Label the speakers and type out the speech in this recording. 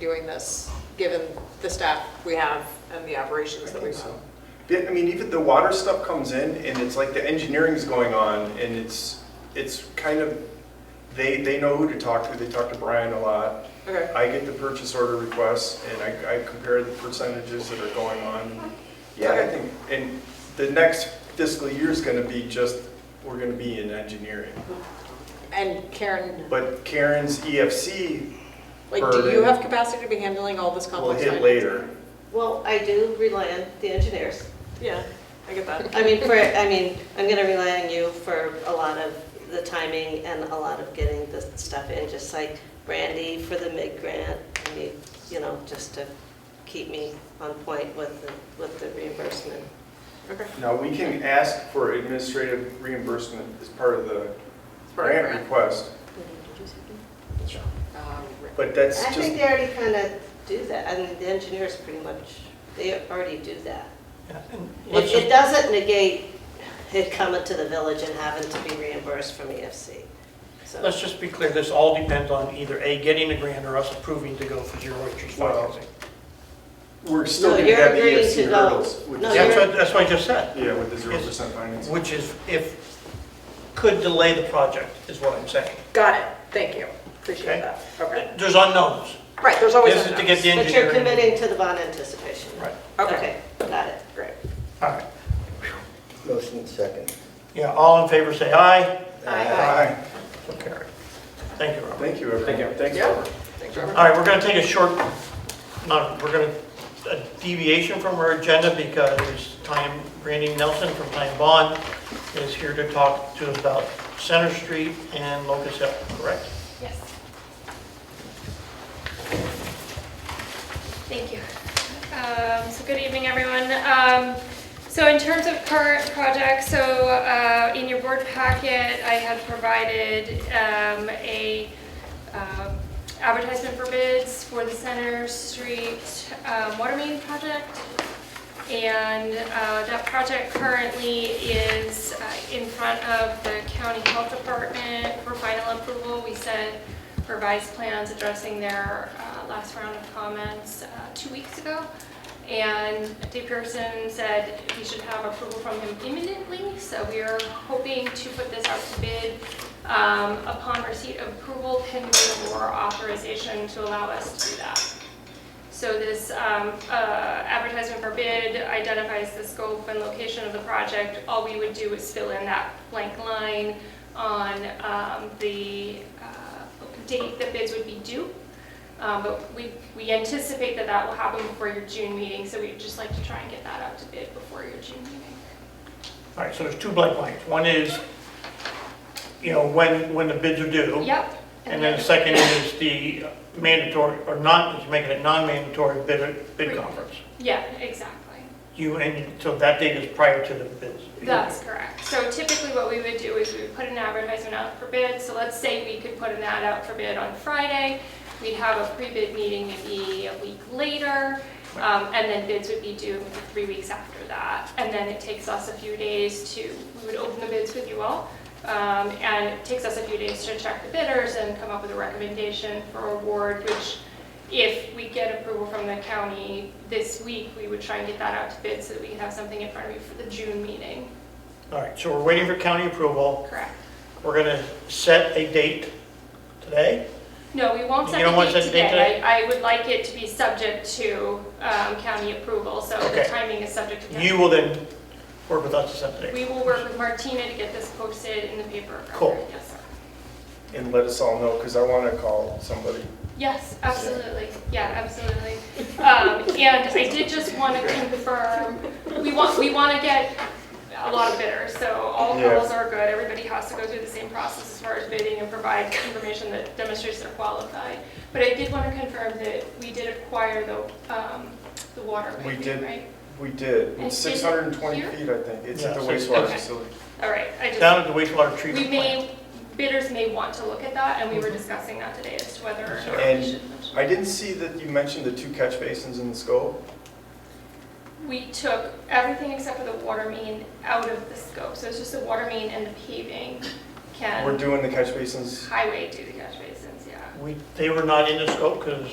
Speaker 1: doing this, given the staff we have and the operations that we have.
Speaker 2: Yeah, I mean, even the water stuff comes in and it's like the engineering's going on and it's, it's kind of, they, they know who to talk to, they talk to Brian a lot.
Speaker 1: Okay,
Speaker 2: I get the purchase order requests and I, I compare the percentages that are going on. Yeah, I think, and the next fiscal year's gonna be just, we're gonna be in engineering.
Speaker 1: and Karen,
Speaker 2: But Karen's E EFC
Speaker 1: like, do you
Speaker 2: Burden.
Speaker 1: have capacity to be handling all this
Speaker 2: will
Speaker 1: complex?
Speaker 2: hit
Speaker 1: finance?
Speaker 2: later.
Speaker 3: Well, I do rely on the engineers.
Speaker 1: Yeah, I get that.
Speaker 3: I mean, for, I mean, I'm gonna rely on you for a lot of the timing and a lot of getting the stuff in, just like Brandy for the mid grant, I mean, you know, just to keep me on point with, the with the reimbursement.
Speaker 1: Okay.
Speaker 2: Now, we can ask for administrative reimbursement as part of the
Speaker 1: It's part of
Speaker 2: grant
Speaker 1: grant.
Speaker 2: request,
Speaker 1: Um, right.
Speaker 2: but that's
Speaker 3: I
Speaker 2: just.
Speaker 3: think they already kind of do that, I mean, the engineers pretty much, they already do that.
Speaker 4: Yeah, and let's
Speaker 3: It, it
Speaker 4: just-
Speaker 3: doesn't negate it coming to the village and having to be reimbursed from EFC, so.
Speaker 4: Let's just be clear, this all depends on either A, getting a grant, or us approving to go for zero interest
Speaker 2: Well,
Speaker 4: financing.
Speaker 2: We're still
Speaker 3: No,
Speaker 2: gonna
Speaker 3: you're
Speaker 2: have the
Speaker 3: agreeing
Speaker 2: EFC
Speaker 3: to go.
Speaker 2: hurdles. with
Speaker 3: No,
Speaker 2: the-
Speaker 4: That's what, that's what I just said,
Speaker 2: Yeah, with the zero percent financing.
Speaker 4: which is if, could delay the project, is what I'm saying.
Speaker 1: Got it, thank you, appreciate
Speaker 4: Okay.
Speaker 1: that. Okay,
Speaker 4: There's unknowns.
Speaker 1: right, there's always
Speaker 4: This is to get the
Speaker 1: unknowns.
Speaker 3: But you're
Speaker 4: engineering.
Speaker 3: committing to the bond anticipation.
Speaker 4: Right,
Speaker 1: Okay,
Speaker 3: Okay, got it.
Speaker 1: great.
Speaker 4: all right.
Speaker 5: Motion second.
Speaker 4: Yeah, all in favor, say aye.
Speaker 1: Aye.
Speaker 4: So carried. Thank you, Robert.
Speaker 2: Thank you, everyone. Thank you. Thanks,
Speaker 1: Yeah.
Speaker 2: Robert.
Speaker 1: Thanks, Robert.
Speaker 4: All right, we're going to take a short, not, we're going to, a deviation from our agenda because Time, Randy Nelson from Time Bond is here to talk to us about Center Street and Locust Hill, correct?
Speaker 6: Yes. Thank you. Um, So good evening, everyone. Um, So in terms of current projects, so uh, in your board packet, I had provided um, a um, advertisement for bids for the Center Street um, water main project. And uh, that project currently is uh, in front of the county health department for final approval. We sent revised plans addressing their uh, last round of comments uh, two weeks ago. And Dave Pearson said we should have approval from him imminently, so we are hoping to put this out to bid. um, Upon receipt of approval, pending more authorization to allow us to do that. So this um, uh, advertisement for bid identifies the scope and location of the project. All we would do is fill in that blank line on um, the uh, date the bids would be due. Um, But we we anticipate that that will happen before your June meeting, so we'd just like to try and get that out to bid before your June meeting.
Speaker 4: All right, so there's two blank lines. One is, you know, when, when the bids are due.
Speaker 6: Yep.
Speaker 4: Oh. And then the second is the mandatory, or not, it's making it non-mandatory bid, bid conference.
Speaker 6: Yeah, exactly.
Speaker 4: You, and so that date is prior to the bids.
Speaker 6: That's correct. So typically what we would do is we would put an advertisement out for bid. So let's say we could put an ad out for bid on Friday. We'd have a pre-bid meeting maybe a week later. um, And then bids would be due maybe three weeks after that. And then it takes us a few days to, we would open the bids with you all. um, And it takes us a few days to check the bidders and come up with a recommendation for award, which if we get approval from the county this week, we would try and get that out to bid so that we can have something in front of you for the June meeting.
Speaker 4: All right, so we're waiting for county approval.
Speaker 6: Correct.
Speaker 4: We're going to set a date today.
Speaker 6: No, we won't
Speaker 4: You
Speaker 6: set
Speaker 4: don't
Speaker 6: the
Speaker 4: want to
Speaker 6: date
Speaker 4: set the date
Speaker 6: today. I I would like it to be subject to um, county approval, so the
Speaker 4: Okay.
Speaker 6: timing is subject to county.
Speaker 4: You will then work with us to set the date.
Speaker 6: We will work with Martina to get this posted in the paper.
Speaker 4: Cool.
Speaker 6: Yes, sir.
Speaker 2: And let us all know, because I want to call somebody.
Speaker 6: Yes, absolutely. Yeah, absolutely. Um, and I did just want to confirm, we want, we want to get a lot of bidders, so all
Speaker 2: Yeah.
Speaker 6: hurdles are good. Everybody has to go through the same process as far as bidding and provide information that demonstrates they're qualified. But I did want to confirm that we did acquire the, um, the water
Speaker 2: We
Speaker 6: main,
Speaker 2: did.
Speaker 6: right?
Speaker 2: We did,
Speaker 6: And
Speaker 2: it's 620
Speaker 6: is it
Speaker 2: feet, I think. It's at the
Speaker 4: Yeah,
Speaker 2: wastewater
Speaker 6: okay.
Speaker 2: facility.
Speaker 6: All right, I
Speaker 4: Down
Speaker 6: just,
Speaker 4: at the wastewater
Speaker 6: we
Speaker 4: treatment plant.
Speaker 6: may, bidders may want to look at that, and we were discussing that today as to whether or not we
Speaker 2: And
Speaker 6: should.
Speaker 2: I didn't see that you mentioned the two catch basins in the scope.
Speaker 6: We took everything except for the water main out of the scope, so it's just the water main and the paving
Speaker 2: We're
Speaker 6: can
Speaker 2: doing the catch basins,
Speaker 6: highway do the catch basins, yeah.
Speaker 4: We, they were not in the scope because